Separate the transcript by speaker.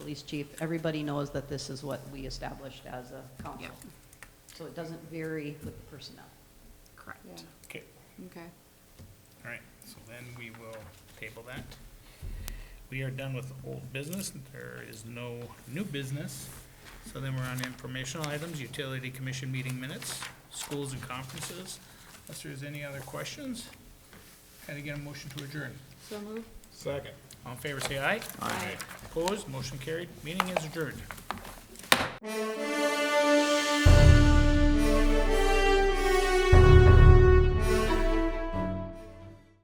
Speaker 1: police chief, everybody knows that this is what we established as a council.
Speaker 2: Yeah.
Speaker 1: So it doesn't vary with the personnel.
Speaker 2: Correct.
Speaker 3: Yeah,
Speaker 4: Okay,
Speaker 3: okay.
Speaker 4: all right, so then we will table that. We are done with old business, there is no new business. So then we're on informational items, utility commission meeting minutes, schools and conferences. Unless there's any other questions, and again, a motion to adjourn.
Speaker 3: So move.
Speaker 4: Second. All in favor, say aye.
Speaker 3: Aye.
Speaker 4: Opposed, motion carried, meeting is adjourned.